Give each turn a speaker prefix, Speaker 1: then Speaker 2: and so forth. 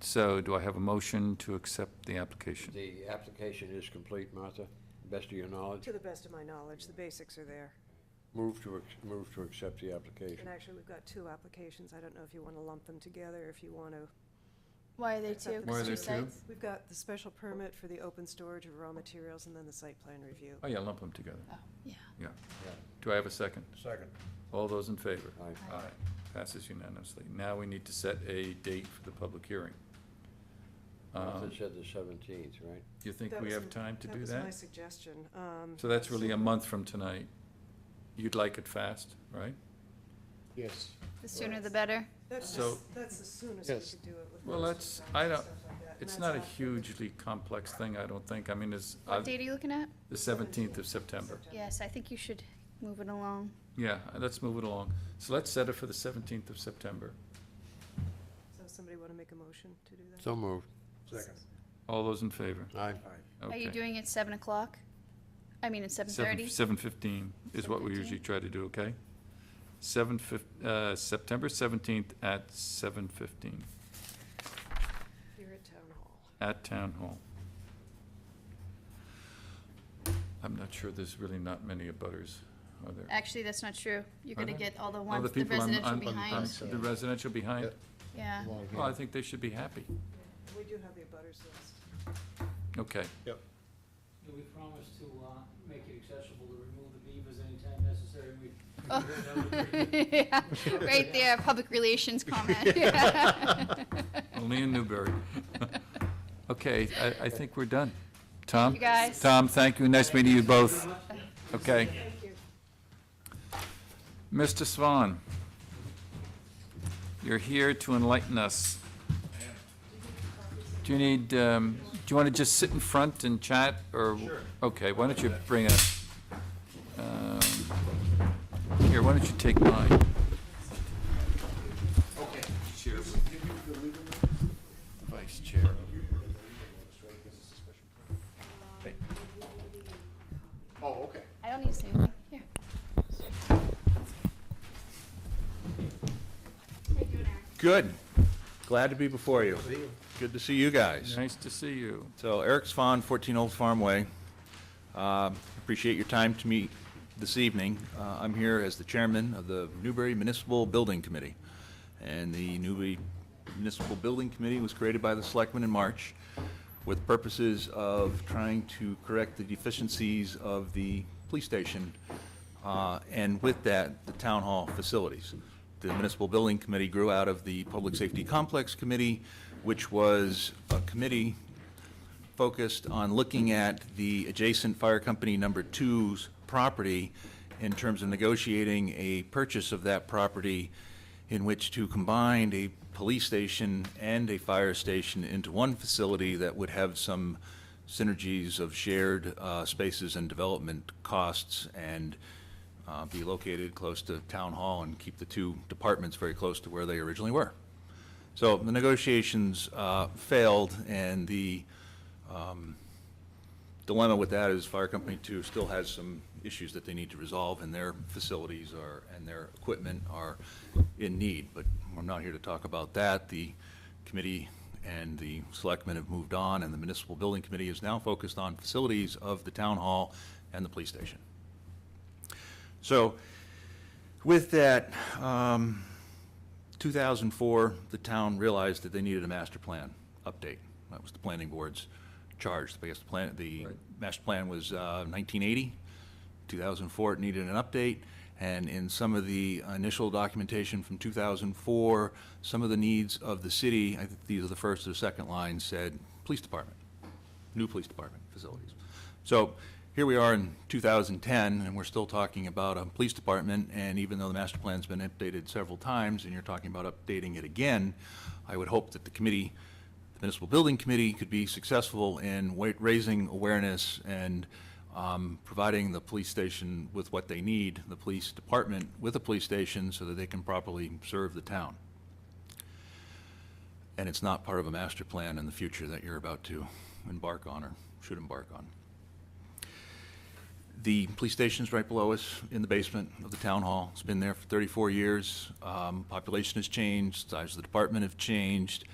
Speaker 1: So do I have a motion to accept the application?
Speaker 2: The application is complete, Martha, best of your knowledge.
Speaker 3: To the best of my knowledge, the basics are there.
Speaker 2: Move to, ac- move to accept the application.
Speaker 3: And actually, we've got two applications. I don't know if you want to lump them together, if you want to.
Speaker 4: Why are they
Speaker 3: Except
Speaker 4: two?
Speaker 3: the
Speaker 1: Why are
Speaker 4: Two
Speaker 1: there two?
Speaker 4: sites?
Speaker 3: We've got the special permit for the open storage of raw materials and then the site plan review.
Speaker 1: Oh, yeah, lump them together.
Speaker 4: Oh, yeah.
Speaker 1: Yeah. Do I have a second?
Speaker 2: Second.
Speaker 1: All those in favor?
Speaker 2: Aye.
Speaker 1: Aye. Passes unanimously. Now we need to set a date for the public hearing.
Speaker 2: Martha
Speaker 1: Um,
Speaker 2: said the seventeenth, right?
Speaker 1: You think
Speaker 3: That
Speaker 1: we
Speaker 3: was
Speaker 1: have
Speaker 3: m-
Speaker 1: time to do
Speaker 3: was my
Speaker 1: that?
Speaker 3: suggestion. Um,
Speaker 1: So that's really a month from tonight. You'd like it fast, right?
Speaker 5: Yes.
Speaker 4: The sooner the better.
Speaker 3: That's
Speaker 1: So-
Speaker 3: just, that's the soonest we
Speaker 5: Yes.
Speaker 3: could do it with.
Speaker 1: Well, that's,
Speaker 3: notice of time
Speaker 1: I
Speaker 3: and
Speaker 1: don't,
Speaker 3: stuff like that, and
Speaker 1: it's
Speaker 3: that's
Speaker 1: not a
Speaker 3: after the
Speaker 1: hugely complex thing, I don't think. I mean, it's uh,
Speaker 4: What date are you looking at?
Speaker 1: the seventeenth of September.
Speaker 4: Yes, I think you should move it along.
Speaker 1: Yeah, uh, let's move it along. So let's set it for the seventeenth of September.
Speaker 3: So somebody want to make a motion to do that?
Speaker 2: So moved.
Speaker 5: Second.
Speaker 1: All those in favor?
Speaker 2: Aye.
Speaker 4: Are you
Speaker 1: Okay.
Speaker 4: doing it seven o'clock? I mean, at seven thirty?
Speaker 1: Seven fifteen is what we
Speaker 4: 7:15?
Speaker 1: usually try to do, okay? Seven fif, uh, September seventeenth at seven fifteen,
Speaker 3: Here at Town Hall.
Speaker 1: at Town Hall. I'm not sure, there's really not many abutters, are there?
Speaker 4: Actually, that's not true. You're gonna
Speaker 1: Okay.
Speaker 4: get all the
Speaker 1: Other
Speaker 4: ones, the
Speaker 1: people on-
Speaker 4: residential
Speaker 1: on- on-
Speaker 4: behind.
Speaker 1: The residential behind?
Speaker 5: Yep.
Speaker 4: Yeah.
Speaker 5: Long
Speaker 1: Well, I
Speaker 5: hand.
Speaker 1: think they should be happy.
Speaker 3: We do have the abutters list.
Speaker 1: Okay,
Speaker 6: Yeah, we promised to, uh, make it accessible to remove the beavers anytime necessary, and we.
Speaker 4: Oh.
Speaker 6: we-
Speaker 4: Yeah, Right there, public relations comment.
Speaker 1: only in Newbury. Okay, I, I think we're done. Tom?
Speaker 4: you, guys.
Speaker 1: Tom, thank you, nice meeting you both,
Speaker 6: Pretty much.
Speaker 1: okay?
Speaker 3: Thank you.
Speaker 1: Mr. Swan, you're here to enlighten us. Do you need, um, do you want to just sit in front and chat, or? Okay, why don't you bring a, um, here, why don't you take mine? Okay. Chair. Vice Chair. Hey,
Speaker 5: Oh, okay.
Speaker 4: I don't need to say anything. Here.
Speaker 7: Good. Glad to be before you. Good to see you guys.
Speaker 1: Nice to see you.
Speaker 7: So Eric Svan, 14 Old Farm Way. Um, Appreciate your time to meet this evening. Uh, I'm here as the chairman of the Newbury Municipal Building Committee. And the Newbury Municipal Building Committee was created by the selectmen in March with purposes of trying to correct the deficiencies of the police station uh, and with that, the town hall facilities. The Municipal Building Committee grew out of the Public Safety Complex Committee, which was a committee focused on looking at the adjacent fire company number two's property in terms of negotiating a purchase of that property in which to combine a police station and a fire station into one facility that would have some synergies of shared uh, spaces and development costs and uh, be located close to town hall and keep the two departments very close to where they originally were. So the negotiations uh, failed, and the um, dilemma with that is Fire Company Two still has some issues that they need to resolve, and their facilities are, and their equipment are in need. But I'm not here to talk about that. The committee and the selectmen have moved on, and the Municipal Building Committee is now focused on facilities of the town hall and the police station. So with that, um, 2004, the town realized that they needed a master plan update. That was the planning board's charge. I guess the plan, the
Speaker 1: Right.
Speaker 7: master plan was uh, 1980. 2004, it needed an update. And in some of the initial documentation from 2004, some of the needs of the city, I think these are the first or second line, said, police department new police department facilities. So here we are in 2010, and we're still talking about a police department, and even though the master plan's been updated several times, and you're talking about updating it again, I would hope that the committee, the municipal building committee, could be successful in wa- raising awareness and um, providing the police station with what they need, the police department with a police station, so that they can properly serve the town. And it's not part of a master plan in the future that you're about to embark on or should embark on. The police station's right below us in the basement of the town hall. It's been there for 34 years. Um, Population has changed, size of the department have changed.